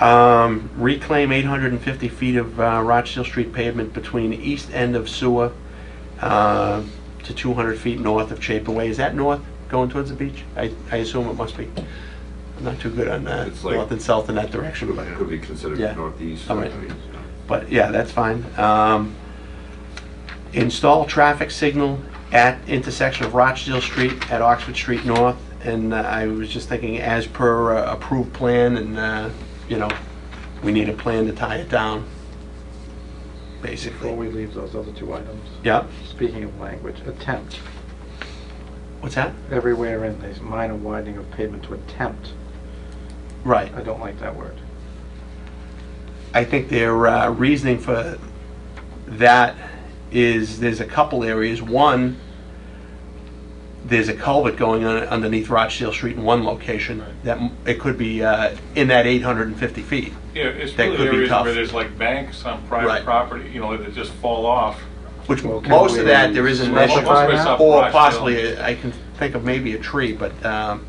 Um, reclaim 850 feet of uh, Rochdale Street pavement between the east end of Sewer uh, to 200 feet north of Chapin Way. Is that north, going towards the beach? I I assume it must be. I'm not too good on that, It's like- north and south in that direction, but, Could be considered Yeah. northeast. All right. I mean, but yeah, that's fine. Um, Install traffic signal at intersection of Rochdale Street at Oxford Street North, and uh, I was just thinking, as per uh, approved plan, and, uh, you know, we need a plan to tie it down, Before basically. we leave those other two items, Yeah, speaking of language, attempt, what's that? everywhere in these minor widening of pavement to attempt, Right. I don't like that word. I think their uh, reasoning for that is, there's a couple areas. One, there's a culvert going on underneath Rochdale Street in one location, that, m- it could be uh, in that 850 feet. Yeah, it's That could really be areas tough. where there's like banks on Right. private property, you know, that just fall off. Which, Well, can most of we that, there is an Well, initial, most of it's up or Rochdale. possibly, a- I can think of maybe a tree, but, um,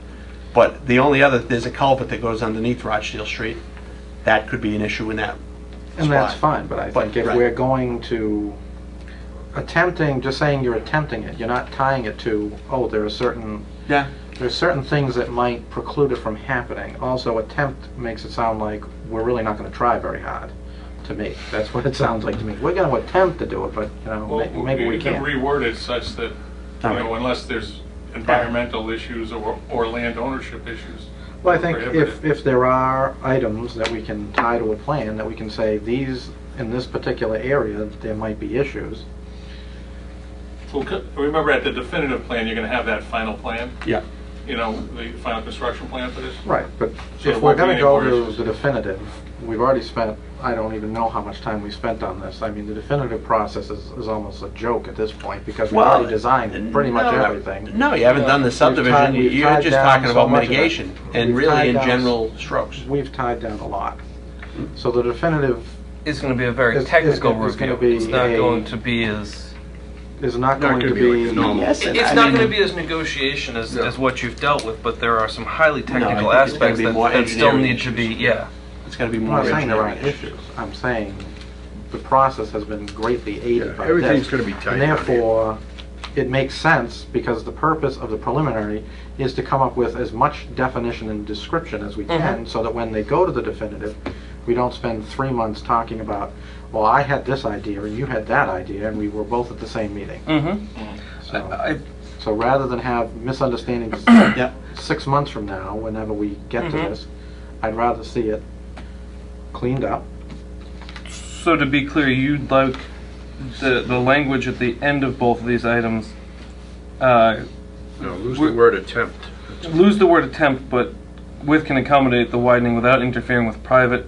but the only other, there's a culvert that goes underneath Rochdale Street. That could be an issue in that And that's spot. fine, but I But- think if right. we're going to attempting, just saying you're attempting it, you're not tying it to, oh, there are certain, Yeah, there's certain things that might preclude it from happening. Also, attempt makes it sound like we're really not gonna try very hard, to me. That's what it sounds like to me. We're gonna attempt to do it, but, you know, Well, may- maybe we You can can't. reword it such that, you All right. know, unless there's environmental issues or, or land ownership issues. Well, I think if, prohibited. if there are items that we can tie to a plan, that we can say, these, in this particular area, there might be issues. Well, c- Remember, at the definitive plan, you're gonna have that final plan, yeah. you know, the final construction plan for this. Right, but So if it we're won't be gonna any go more to issues. the definitive, we've already spent, I don't even know how much time we spent on this. I mean, the definitive process is, is almost a joke at this point, because we Well, already designed pretty much no, everything. No, you haven't done the We've tied- subdivision, we've you're tied just down talking so about much of it. mitigation, and We've really tied in down- general Hmm? strokes. We've tied down a lot. So the definitive It's going to be a very It's- it's technical gonna- it's review. gonna be It's not a- going to be as, is not Not going to gonna be like the normal. be, Yes, and it's I not mean- going to be as negotiation as, No. as what you've dealt with, but there are some highly I technical think it's gonna aspects be that, more that still engineering need to be, issues. yeah. It's gotta be I'm more not saying there engineering aren't issues. issues. I'm saying the process has been greatly aided by Yeah, this. everything's gonna be tied And down here. therefore, it makes sense, because the purpose of the preliminary is to come up with as much definition and description as we Mm-hmm. can, so that when they go to the definitive, we don't spend three months talking about, well, I had this idea, and you had that idea, and we were both at the same meeting. Mm-hmm. So I, so rather than have misunderstandings Yep, six months from now, whenever we get to Mhm. this, I'd rather see it cleaned up, so to be clear, you'd like the, the language at the end of both of these items, uh, No, lose We're- the word attempt. lose the word attempt, but with can accommodate the widening without interfering with private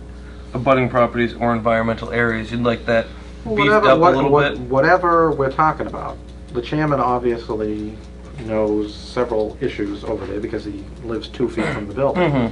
abutting properties or environmental areas. You'd like that beefed whatever, up what- a little what- bit? Whatever we're talking about, the chairman obviously knows several issues over there because he lives two feet from the building. Mhm.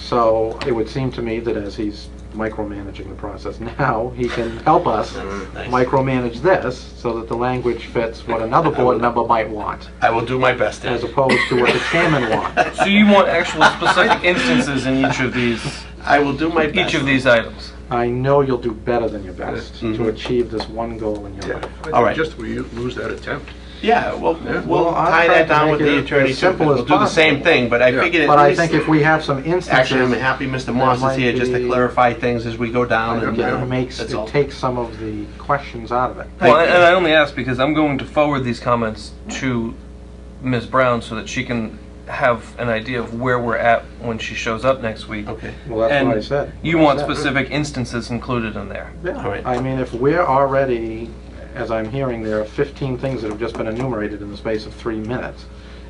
So it would seem to me that as he's micromanaging the process now, he can help us Mm-hmm. Nice. micromanage this so that the language fits what another board member might want, I will do my best as to, opposed to what the chairman wants. So you want actual specific instances in each of these, I will do my best. each of these items? I know you'll do better than your best to Mhm. achieve this one goal in your Yeah, life. I All think right. Just we lose that attempt. Yeah, well, Yeah. we'll Well, I'll tie try that to down make with it the as attorney, too, simple because as we'll do the same possible. thing, but I Yeah. figured But at I least, think if we have some instances. actually, I'm happy Mr. Moss is might here just to be- clarify things as we go down, and, And you it know, makes, that's all. it takes some of the questions out of it. Well, and and I only ask because I'm going to forward these comments to Ms. Brown so that she can have an idea of where we're at when she shows up next week. Okay, Well, that's And what I said. You What I want said. specific instances included in there. All right. Yeah, I mean, if we're already, as I'm hearing, there are 15 things that have just been enumerated in the space of three minutes,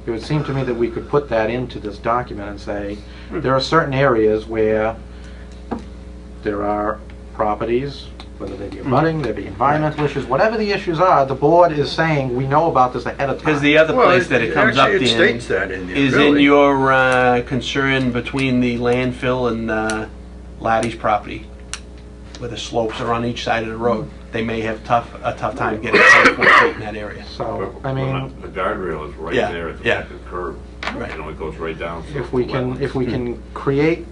it would seem to me that we could put that into this document and say, Hmm. there are certain areas where there are properties, whether they Hmm. be abutting, there be environmental issues, whatever the issues are, the board is saying, we know about this ahead of time. because the other Well, place that it comes up, Actually, it Dan, states that in there, is in really. your uh, concern between the landfill and uh, Laddie's property, where the slopes are on each side of the road. They may have tough, a tough time getting some feet in that area. So, I mean, The guardrail is right Yeah, there at the yeah. back of the curb. Right. You know, it goes right down. hmm. if we can, if we can create